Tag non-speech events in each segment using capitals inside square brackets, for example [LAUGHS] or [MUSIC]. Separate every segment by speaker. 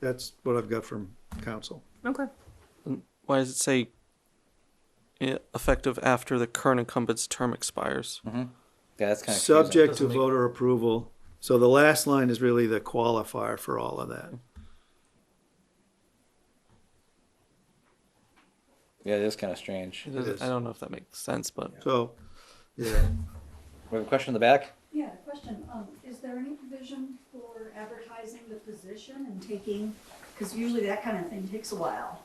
Speaker 1: that's what I've got from council.
Speaker 2: Okay.
Speaker 3: Why does it say eh, effective after the current incumbent's term expires?
Speaker 4: Yeah, that's kind of
Speaker 1: Subject to voter approval. So the last line is really the qualifier for all of that.
Speaker 4: Yeah, it is kind of strange.
Speaker 3: It
Speaker 4: We
Speaker 3: doesn't-
Speaker 1: is.
Speaker 3: I don't know if that makes sense, but
Speaker 1: So, yeah,
Speaker 4: have a question in the back.
Speaker 5: Yeah, question, um, is there any provision for advertising the position and taking, because usually that kind of thing takes a while.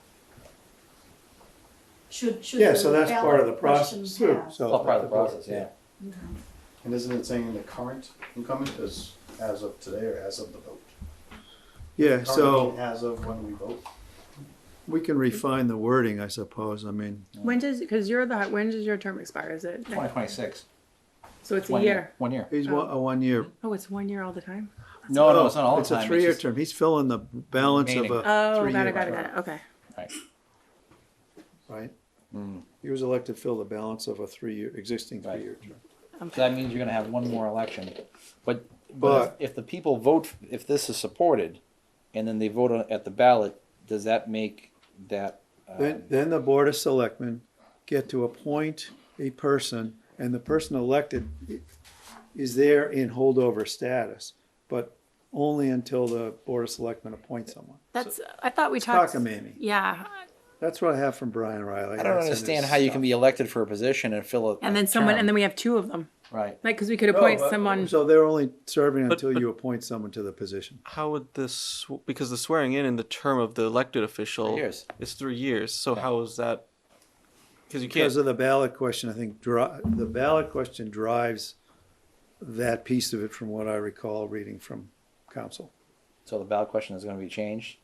Speaker 5: Should, should.
Speaker 1: yeah, so
Speaker 5: the
Speaker 1: that's part of the
Speaker 5: ballot
Speaker 1: process
Speaker 5: questions
Speaker 1: too.
Speaker 2: Oh,
Speaker 5: have-
Speaker 1: So
Speaker 4: All part of the process. Yeah.
Speaker 6: And isn't it saying the current incumbent is as of today or as of the vote?
Speaker 1: Yeah,
Speaker 6: Current meaning
Speaker 1: so
Speaker 6: As of when we vote?
Speaker 1: we can refine the wording, I suppose. I mean,
Speaker 2: When does because you're the when does your term expire? Is it
Speaker 4: Twenty twenty six.
Speaker 2: so it's a
Speaker 4: One
Speaker 2: year.
Speaker 4: year. One year.
Speaker 1: he's one, a one-year.
Speaker 2: Oh, it's one year all the time.
Speaker 4: Oh, No, no, it's not all the
Speaker 1: It's
Speaker 4: time.
Speaker 1: a three-year
Speaker 4: just-
Speaker 1: term. He's filling the balance of
Speaker 4: Remaining.
Speaker 1: a
Speaker 2: Oh, got
Speaker 1: three-year
Speaker 2: it, got it, got
Speaker 1: term,
Speaker 2: it. Okay.
Speaker 4: Right.
Speaker 1: right? He was elected to fill the balance of a three-year, existing
Speaker 4: Hmm. Right.
Speaker 1: three-year term.
Speaker 4: So that means you're going to have one more election. But, but,
Speaker 1: But-
Speaker 4: if, if the people vote, if this is supported, and then they vote on, at the ballot, does that make that? Um,
Speaker 1: Then, then the Board of Selectmen get to appoint a person, and the person elected i- is there in holdover status, but only until the Board of Selectmen appoints someone.
Speaker 2: That's I thought we talked.
Speaker 1: Cockamamie.
Speaker 2: Yeah,
Speaker 1: That's what I have from Brian Riley.
Speaker 4: I don't
Speaker 1: That's in his
Speaker 4: understand how you can be elected for a position and fill a
Speaker 2: and then someone,
Speaker 4: term.
Speaker 2: and then we have two of them,
Speaker 4: right.
Speaker 2: like because we could
Speaker 1: stuff.
Speaker 2: appoint
Speaker 1: No, but-
Speaker 2: someone.
Speaker 1: So they're only serving
Speaker 3: But-
Speaker 1: until
Speaker 3: but-
Speaker 1: you appoint someone to the position.
Speaker 3: how would this? Because the swearing in in the term of the elected official
Speaker 4: years.
Speaker 3: is three years. So how is that? Because you can't.
Speaker 1: Because of the ballot question, I think dri- the ballot question drives that piece of it from what I recall reading from council.
Speaker 4: So the ballot question is going to be changed.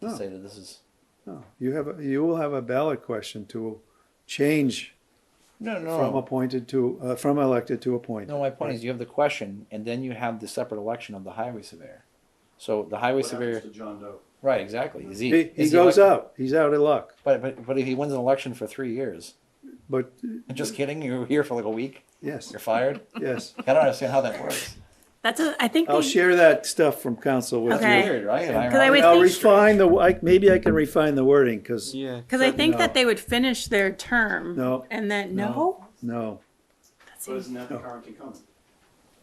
Speaker 4: To
Speaker 1: No.
Speaker 4: Say that this is
Speaker 1: No, you have, a- you will have a ballot question to change
Speaker 4: no, no.
Speaker 1: from appointed to, uh, from elected to appointed.
Speaker 4: No, my point is you have the question, and then you have the separate election of the highway surveyor. So the highway
Speaker 6: What happens
Speaker 4: surveyor,
Speaker 6: to John Doe?
Speaker 4: right? Exactly. Is he,
Speaker 1: He, he
Speaker 4: is
Speaker 1: goes
Speaker 4: elect-
Speaker 1: out, he's out of luck,
Speaker 4: But, but but if he wins an election for three years,
Speaker 1: but
Speaker 4: just kidding. You're here for like a week.
Speaker 1: yes,
Speaker 4: [LAUGHS] You're fired.
Speaker 1: yes.
Speaker 4: I don't understand how that works.
Speaker 2: That's a I think
Speaker 1: I'll
Speaker 2: they-
Speaker 1: share that stuff from council with
Speaker 2: Okay.
Speaker 1: you.
Speaker 4: Weird, right? And
Speaker 2: I
Speaker 4: ironic.
Speaker 2: would
Speaker 1: I'll
Speaker 2: think-
Speaker 1: refine the, I, maybe I can refine the wording, because,
Speaker 3: Yeah.
Speaker 2: Because I think
Speaker 1: No.
Speaker 2: that they would finish their term.
Speaker 1: No.
Speaker 2: And then,
Speaker 1: No.
Speaker 2: no?
Speaker 1: no,
Speaker 2: That
Speaker 6: But
Speaker 2: seems-
Speaker 6: isn't that the current incumbent?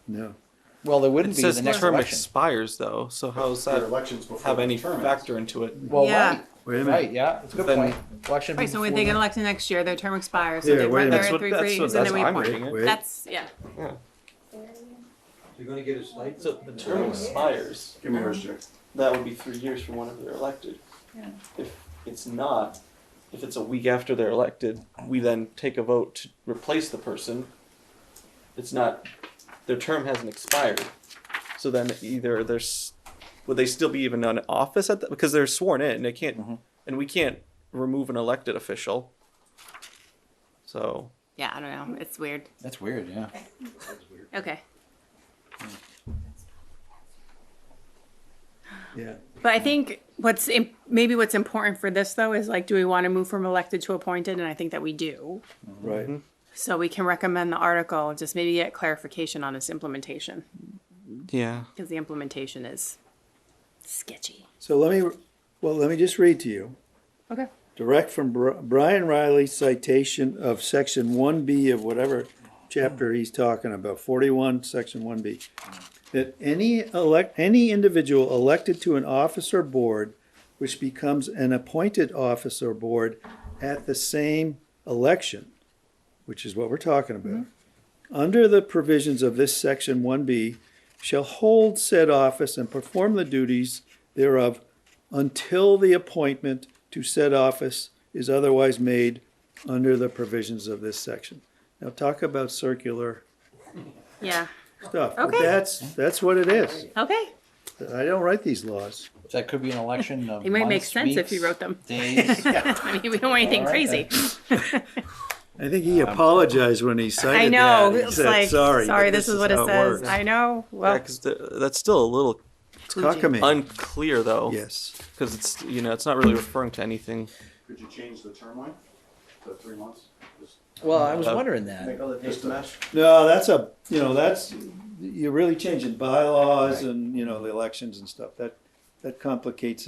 Speaker 1: no.
Speaker 4: Well, there
Speaker 3: It
Speaker 4: wouldn't be
Speaker 3: says
Speaker 4: the
Speaker 3: the
Speaker 4: next
Speaker 3: term
Speaker 4: election.
Speaker 3: expires though. So how's
Speaker 6: There are
Speaker 3: that
Speaker 6: elections before.
Speaker 3: have
Speaker 6: the
Speaker 3: any
Speaker 6: term ends.
Speaker 3: factor into it?
Speaker 4: well,
Speaker 2: Yeah.
Speaker 4: right,
Speaker 1: Wait a
Speaker 4: right,
Speaker 1: minute,
Speaker 4: yeah, it's a good
Speaker 3: Then-
Speaker 4: point. Election.
Speaker 2: Right, so when
Speaker 4: before-
Speaker 2: they get elected next year, their term expires. So
Speaker 1: Yeah,
Speaker 2: they
Speaker 1: wait a
Speaker 2: run their
Speaker 1: minute.
Speaker 2: three
Speaker 3: That's
Speaker 2: years
Speaker 3: what-
Speaker 2: and
Speaker 3: that's
Speaker 2: then we
Speaker 3: what I'm
Speaker 2: appoint.
Speaker 3: reading it.
Speaker 1: wait.
Speaker 2: That's, yeah.
Speaker 3: You're gonna get a slight. So the term expires.
Speaker 6: Give me yours, Jake.
Speaker 3: that would be three years from whenever they're elected.
Speaker 5: Yeah.
Speaker 3: If it's not, if it's a week after they're elected, we then take a vote to replace the person. It's not, their term hasn't expired. So then either there's, would they still be even on office at that? Because they're sworn in, they can't, and we can't remove an elected official. So,
Speaker 2: Yeah, I don't know. It's weird.
Speaker 4: That's weird. Yeah.
Speaker 2: Okay.
Speaker 1: yeah.
Speaker 2: But I think what's im- maybe what's important for this though is like, do we want to move from elected to appointed? And I think that we do.
Speaker 1: Right,
Speaker 2: So we can recommend the article, just maybe get clarification on its implementation
Speaker 3: yeah.
Speaker 2: because the implementation is sketchy.
Speaker 1: so let me, well, let me just read to you.
Speaker 2: Okay.
Speaker 1: direct from Bri- Brian Riley's citation of section one B of whatever chapter he's talking about, forty-one, section one B. That any elect, any individual elected to an office or board which becomes an appointed office or board at the same election, which is what we're talking about, under the provisions of this section one B, shall hold said office and perform the duties thereof until the appointment to said office is otherwise made under the provisions of this section. Now, talk about circular
Speaker 2: Yeah.
Speaker 1: stuff. but
Speaker 2: Okay.
Speaker 1: That's, that's what it is.
Speaker 2: Okay.
Speaker 1: I don't write these laws.
Speaker 4: So that could be an election. Of
Speaker 2: It might make
Speaker 4: months,
Speaker 2: sense if you
Speaker 4: weeks,
Speaker 2: wrote them. [LAUGHS]
Speaker 4: Days.
Speaker 2: I mean, we don't want anything
Speaker 4: All right,
Speaker 2: crazy.
Speaker 1: I think he apologized when he cited that.
Speaker 2: I know.
Speaker 1: He
Speaker 2: It's
Speaker 1: said,
Speaker 2: like, sorry,
Speaker 1: but
Speaker 2: this, is what it
Speaker 1: how
Speaker 2: says.
Speaker 1: works."
Speaker 2: I know. Well,
Speaker 3: Yeah, 'cause th- that's still a little
Speaker 1: Cockamamie,
Speaker 3: unclear though.
Speaker 1: yes.
Speaker 3: Because it's, you know, it's not really referring to anything.
Speaker 6: Could you change the term line to three months? Just
Speaker 4: well, I was wondering that.
Speaker 6: other
Speaker 1: just a- No, that's a, you know, that's, you're really changing bylaws and, you know, the elections and stuff. That, that complicates it.